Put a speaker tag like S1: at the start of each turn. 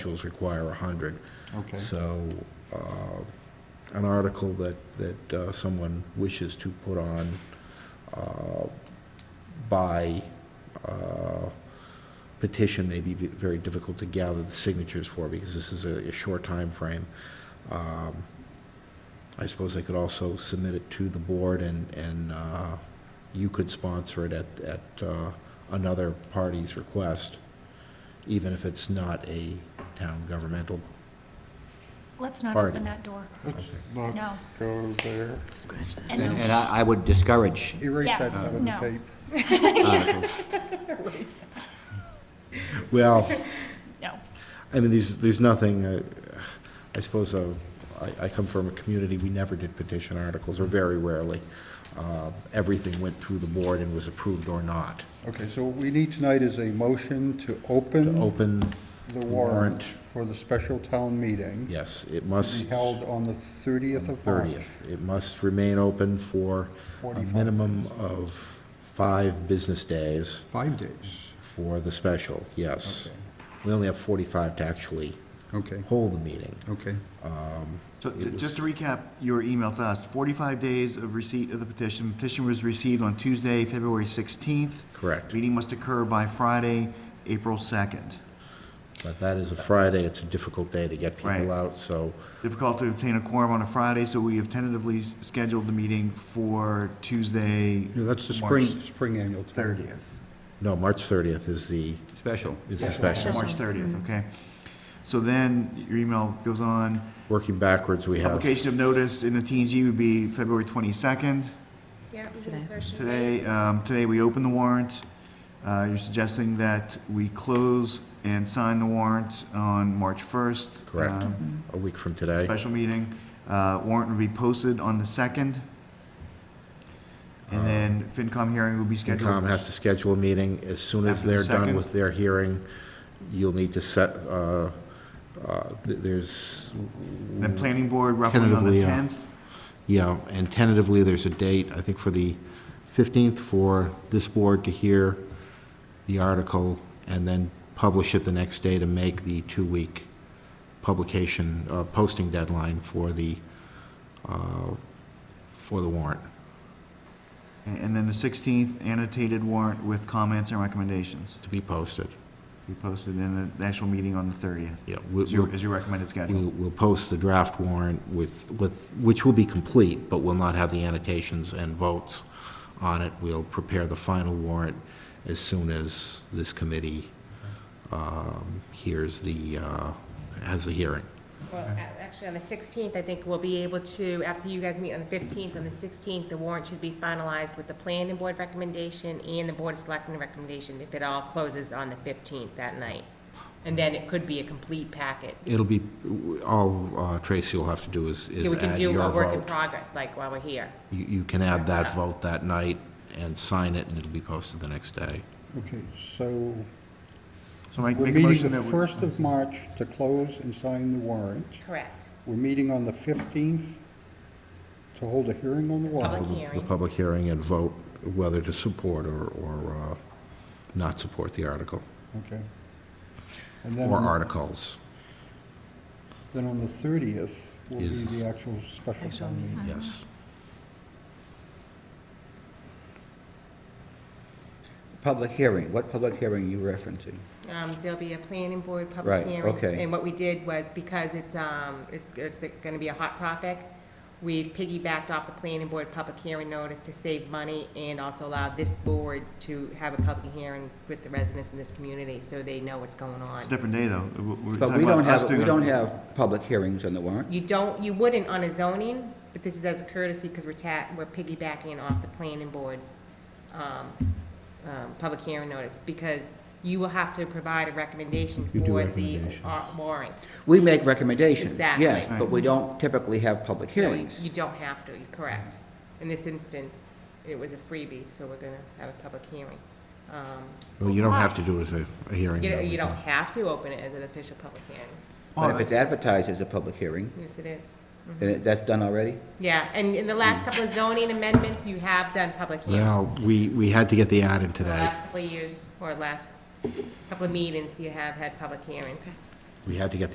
S1: Rules require 100.
S2: Okay.
S1: So, uh, an article that, that uh, someone wishes to put on uh, by uh, petition may be v- very difficult to gather the signatures for, because this is a a short time timeframe. Um, I suppose they could also submit it to the board, and, and uh, you could sponsor it at, at uh, another party's request, even if it's not a town governmental
S3: Let's not
S1: Party.
S3: open that door.
S2: Let's not
S3: No.
S2: go there.
S3: Scratch that.
S4: And and I I would discourage,
S2: Erase that
S3: Yes,
S2: out of the
S3: no.
S2: tape.
S1: Well,
S3: No.
S1: I mean, there's, there's nothing, uh, I suppose, uh, I, I come from a community, we never did petition articles, or very rarely. Uh, Everything went through the board and was approved or not.
S2: Okay, so what we need tonight is a motion to
S1: To
S2: open
S1: open,
S2: the
S1: warrant.
S2: warrant for the special town meeting.
S1: yes, it
S2: To
S1: must,
S2: be held on the 30th of March.
S1: 30th. It must remain open for a
S2: 45
S1: minimum of five business days
S2: Five days.
S1: for the special, yes.
S2: Okay.
S1: We only have 45 to actually
S2: Okay,
S1: hold the meeting.
S2: okay.
S5: So th- just to recap your email to us, 45 days of receipt of the petition. Petition was received on Tuesday, February 16th.
S1: Correct.
S5: Meeting must occur by Friday, April 2nd.
S1: But that is a Friday, it's a difficult day to get
S5: Right.
S1: people out, so
S5: Difficult to obtain a quorum on a Friday, so we have tentatively s- scheduled the meeting for Tuesday.
S2: Yeah, That's the
S5: March
S2: spring, spring annual. town.
S5: 30th.
S1: No, March 30th is the,
S4: special.
S1: is the special.
S5: March 30th, okay. So then your email goes on.
S1: Working backwards, we have.
S5: Publication of notice in the TNG would be February 22nd.
S6: Yeah, insertion.
S5: Today, um, today we open the warrant. Uh, You're suggesting that we close and sign the warrant on March 1st.
S1: Correct.
S5: um,
S1: A week from today.
S5: Special meeting. Uh, Warrant will be posted on the 2nd. And then FinCom hearing will be scheduled.
S1: Uh, FinCom has to schedule a meeting. As soon as
S5: After the
S1: they're done
S5: second.
S1: with their hearing, you'll need to set, uh, uh, th- there's,
S5: The planning board roughly on the
S1: Tentatively, uh,
S5: 10th.
S1: yeah, and tentatively, there's a date, I think, for the 15th for this board to hear the article and then publish it the next day to make the two-week publication, uh, posting deadline for the, uh, for the warrant.
S5: And and then the 16th annotated warrant with comments and recommendations
S1: to be posted.
S5: to be posted in the actual meeting on the 30th.
S1: Yeah, we-
S5: Is your,
S1: we'll,
S5: is your recommended schedule?
S1: we'll we'll post the draft warrant with, with, which will be complete, but will not have the annotations and votes on it. We'll prepare the final warrant as soon as this committee um, hears the, uh, has the hearing.
S6: Well, a- actually, on the 16th, I think we'll be able to, after you guys meet on the 15th, on the 16th, the warrant should be finalized with the planning board recommendation and the board of selectmen recommendation, if it all closes on the 15th that night. And then it could be a complete packet.
S1: It'll be, all uh, Tracy will have to do is
S6: Yeah,
S1: is
S6: We can
S1: add
S6: do
S1: your
S6: a work in
S1: vote.
S6: progress, like while we're here.
S1: You, you can add that vote that night and sign it, and it'll be posted the next day.
S2: Okay, so
S5: So make
S2: we're
S5: make a
S2: meeting
S5: motion that
S2: the
S5: we.
S2: 1st of March to close and sign the warrant.
S6: Correct.
S2: We're meeting on the 15th to hold a hearing on the warrant.
S6: Public
S1: the-
S6: hearing.
S1: The public hearing and vote whether to support or, or uh, not support the article,
S2: Okay. And then
S1: or
S2: on the-
S1: articles,
S2: Then on the 30th will be
S1: Is-
S2: the actual special town meeting.
S1: yes.
S4: Public hearing, what public hearing are you referencing?
S6: Um, there'll be a planning board
S4: Right,
S6: public hearing.
S4: okay.
S6: And what we did was, because it's, um, it- it's gonna be a hot topic, we've piggybacked off the planning board public hearing notice to save money and also allow this board to have a public hearing with the residents in this community, so they know what's going on.
S5: It's a different day, though. We're- we're
S4: But
S5: talking
S4: we
S5: about
S4: don't
S5: us
S4: have, we
S5: doing a-
S4: don't have public hearings on the warrant.
S6: You don't, you wouldn't on a zoning, but this is as a courtesy, because we're ta, we're piggybacking off the planning board's, um, um, public hearing notice, because you will have to provide a recommendation
S1: You do
S6: for the
S1: recommendations.
S6: uh, warrant.
S4: We make recommendations,
S6: Exactly.
S4: yes, but we don't typically have public
S6: No, you-
S4: hearings.
S6: You don't have to, you're correct. In this instance, it was a freebie, so we're gonna have a public hearing. Um,
S1: Well, you don't have to do it as a, a hearing.
S6: You
S1: though.
S6: don't, you don't have to open it as an official public hearing.
S4: But if it's advertised as a public hearing,
S6: Yes, it is.
S4: then it- that's done already?
S6: Yeah, and in the last couple of zoning amendments, you have done public hearings.
S1: Well, we, we had to get the ad in
S6: The
S1: today.
S6: last couple of years, or last couple of meetings, you have had public hearings.
S1: we had to get